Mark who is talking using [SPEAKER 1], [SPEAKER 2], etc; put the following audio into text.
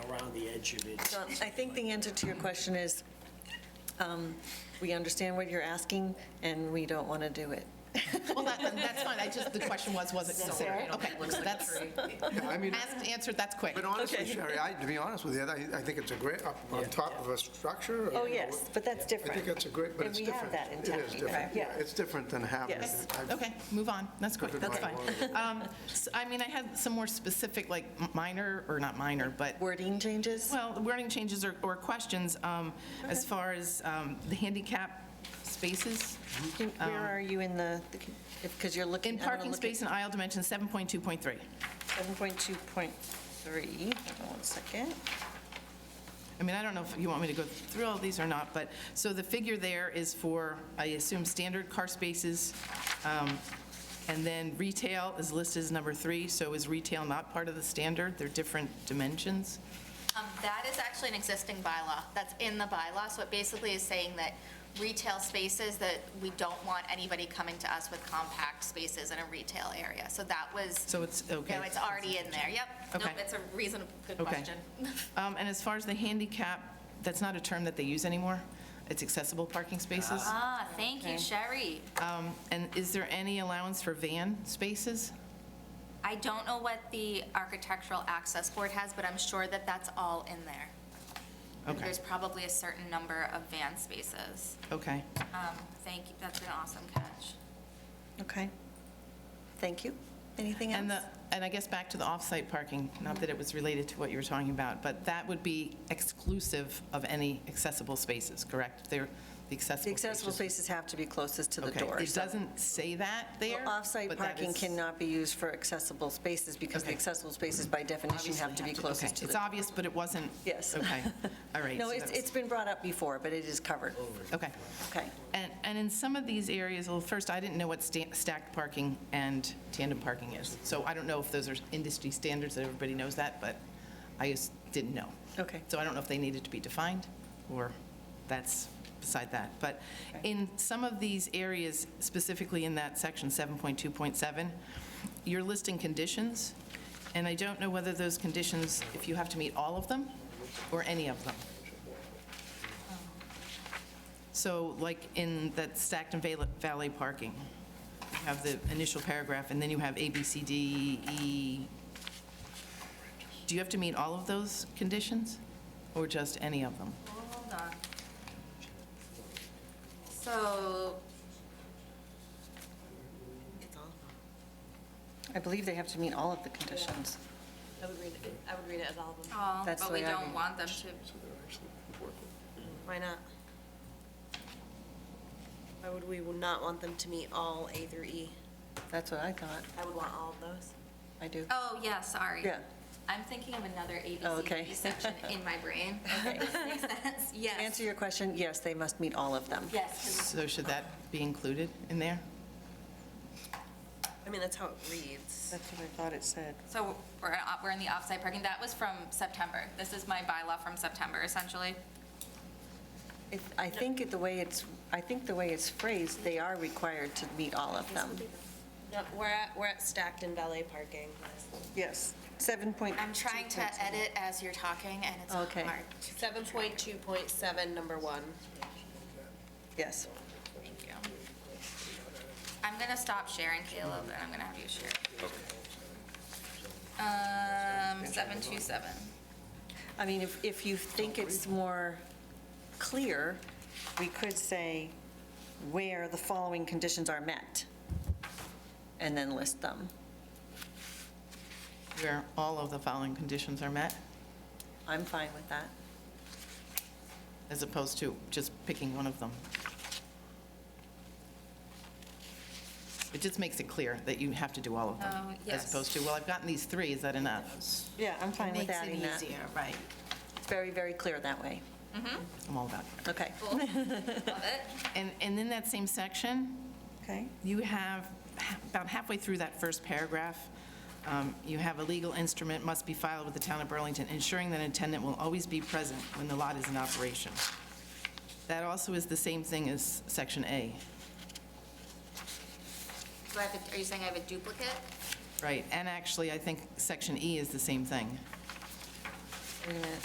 [SPEAKER 1] contributes.
[SPEAKER 2] So I think the answer to your question is, um, we understand what you're asking, and we don't want to do it.
[SPEAKER 3] Well, that, that's fine, I just, the question was, was it considered? Okay, that's,
[SPEAKER 4] Yeah, I mean,
[SPEAKER 3] asked, answered, that's quick.
[SPEAKER 4] but honestly, Sherry, I, to be honest with you, I, I think it's a great, up on top of a structure. or-
[SPEAKER 2] Oh, yes, but that's
[SPEAKER 4] I
[SPEAKER 2] different.
[SPEAKER 4] think it's a great, but
[SPEAKER 2] And
[SPEAKER 4] it's
[SPEAKER 2] we
[SPEAKER 4] different.
[SPEAKER 2] have that in
[SPEAKER 4] It is
[SPEAKER 2] Tuckney,
[SPEAKER 4] different,
[SPEAKER 2] right?
[SPEAKER 4] yeah,
[SPEAKER 2] Yeah.
[SPEAKER 4] it's different than having.
[SPEAKER 2] Yes.
[SPEAKER 4] it. I-
[SPEAKER 3] Okay, move on, that's quick,
[SPEAKER 4] Good
[SPEAKER 3] that's fine.
[SPEAKER 4] point.
[SPEAKER 3] Um, s- I mean, I had some more specific, like m- minor, or not minor, but,
[SPEAKER 2] Wording changes?
[SPEAKER 3] well, wording changes or, or questions um, as far as um, the handicap spaces.
[SPEAKER 2] Can- Where are you in the, because Um, you're looking.
[SPEAKER 3] In
[SPEAKER 2] I wanna
[SPEAKER 3] parking
[SPEAKER 2] look at-
[SPEAKER 3] space and aisle dimensions, 7.2.3.
[SPEAKER 2] 7.2.3, hold on one second.
[SPEAKER 3] I mean, I don't know if you want me to go through all these or not, but, so the figure there is for, I assume, standard car spaces, um, and then retail is listed as number three, so is retail not part of the standard? They're different dimensions?
[SPEAKER 5] Um, That is actually an existing bylaw, that's in the bylaw, so it basically is saying that retail spaces, that we don't want anybody coming to us with compact spaces in a retail area, so that was,
[SPEAKER 3] So it's, okay.
[SPEAKER 5] no, it's already in there, yep. Nope,
[SPEAKER 3] Okay.
[SPEAKER 5] It's a reasonable, good
[SPEAKER 3] Okay.
[SPEAKER 5] question.
[SPEAKER 3] Um, And as far as the handicap, that's not a term that they use anymore? It's accessible parking spaces?
[SPEAKER 5] Ah, thank you, Sherry.
[SPEAKER 3] Um, And is there any allowance for van spaces?
[SPEAKER 5] I don't know what the Architectural Access Board has, but I'm sure that that's all in there.
[SPEAKER 3] Okay.
[SPEAKER 5] There's probably a certain number of van spaces.
[SPEAKER 3] Okay.
[SPEAKER 5] Um, Thank you, that's an awesome catch.
[SPEAKER 2] Okay. Thank you. Anything
[SPEAKER 3] And the,
[SPEAKER 2] else?
[SPEAKER 3] and I guess back to the off-site parking, not that it was related to what you were talking about, but that would be exclusive of any accessible spaces, correct? They're the
[SPEAKER 2] The
[SPEAKER 3] accessible spaces.
[SPEAKER 2] accessible spaces have to be closest to the door.
[SPEAKER 3] Okay, it
[SPEAKER 2] so-
[SPEAKER 3] doesn't say that there?
[SPEAKER 2] Off-site
[SPEAKER 3] but that
[SPEAKER 2] parking
[SPEAKER 3] is-
[SPEAKER 2] cannot be used for accessible spaces because the
[SPEAKER 3] Okay.
[SPEAKER 2] accessible spaces by definition have to be
[SPEAKER 3] Okay,
[SPEAKER 2] closest to the
[SPEAKER 3] it's obvious, but it wasn't.
[SPEAKER 2] Yes.
[SPEAKER 3] Okay, all right.
[SPEAKER 2] No,
[SPEAKER 3] so
[SPEAKER 2] it's,
[SPEAKER 3] that's-
[SPEAKER 2] it's been brought up before, but it is covered.
[SPEAKER 3] Okay.
[SPEAKER 2] Okay.
[SPEAKER 3] And, and in some of these areas, well, first, I didn't know what sta- stacked parking and tandem parking is. So I don't know if those are industry standards, that everybody knows that, but I just didn't know.
[SPEAKER 2] Okay.
[SPEAKER 3] So I don't know if they needed to be defined, or that's beside that. But in some of these areas, specifically in that section 7.2.7, you're listing conditions, and I don't know whether those conditions, if you have to meet all of them or any of them. So like in that stacked and val- valet parking, you have the initial paragraph, and then you have A, B, C, D, E. Do you have to meet all of those conditions, or just any of them?
[SPEAKER 5] Hold on. So,
[SPEAKER 2] I believe they have to meet all of the conditions.
[SPEAKER 6] I would read it, I would read it as all of them.
[SPEAKER 5] oh,
[SPEAKER 2] That's
[SPEAKER 5] but
[SPEAKER 2] the
[SPEAKER 5] we
[SPEAKER 2] way I
[SPEAKER 5] don't
[SPEAKER 2] read
[SPEAKER 5] want them to,
[SPEAKER 6] Why not? Why would we not want them to meet all A through E?
[SPEAKER 2] That's what I thought.
[SPEAKER 6] I would want all of those.
[SPEAKER 2] I do.
[SPEAKER 5] oh, yeah, sorry.
[SPEAKER 2] Yeah.
[SPEAKER 5] I'm thinking of another
[SPEAKER 2] Oh, okay.
[SPEAKER 5] ABCD section in my brain. Okay, makes sense,
[SPEAKER 2] To
[SPEAKER 5] yes.
[SPEAKER 2] answer your question, yes, they must meet all of them.
[SPEAKER 5] Yes,
[SPEAKER 3] So should that be included in there?
[SPEAKER 6] I mean, that's how it reads.
[SPEAKER 2] That's what I thought it said.
[SPEAKER 5] 'cause- so we're, uh, we're in the offsite parking, that was from September. This is my bylaw from September, essentially.
[SPEAKER 2] If- I think it- the way it's, I think the way it's phrased, they are required to meet all of them.
[SPEAKER 6] No, we're at, we're at stacked and valet parking.
[SPEAKER 2] Yes, 7 point.
[SPEAKER 5] I'm trying to edit as you're talking, and it's
[SPEAKER 2] Okay.
[SPEAKER 5] hard.
[SPEAKER 6] Seven point two point seven, number one.
[SPEAKER 2] Yes.
[SPEAKER 5] Thank you. I'm going to stop sharing, Caleb, and I'm going to have you share. Um, 727.
[SPEAKER 2] I mean, if, if you think it's more clear, we could say where the following conditions are met, and then list them.
[SPEAKER 3] Where all of the following conditions are met,
[SPEAKER 2] I'm fine with that.
[SPEAKER 3] as opposed to just picking one of them? It just makes it clear that you have to do all of
[SPEAKER 5] Oh,
[SPEAKER 3] them.
[SPEAKER 5] yes.
[SPEAKER 3] As opposed to, well, I've gotten these three, is that enough?
[SPEAKER 2] Yeah, I'm fine with adding that.
[SPEAKER 3] Makes it easier, right.
[SPEAKER 2] It's very, very clear that way.
[SPEAKER 3] I'm all about it.
[SPEAKER 2] Okay.
[SPEAKER 5] Cool. Love it.
[SPEAKER 3] And, and in that same section,
[SPEAKER 2] Okay.
[SPEAKER 3] you have, ha- about halfway through that first paragraph, um, you have a legal instrument must be filed with the town of Burlington, ensuring that an attendant will always be present when the lot is in operation. That also is the same thing as section A,
[SPEAKER 5] Do I have a, are you saying I have a duplicate?
[SPEAKER 3] right? And actually, I think section E is the same thing.
[SPEAKER 2] Wait a minute.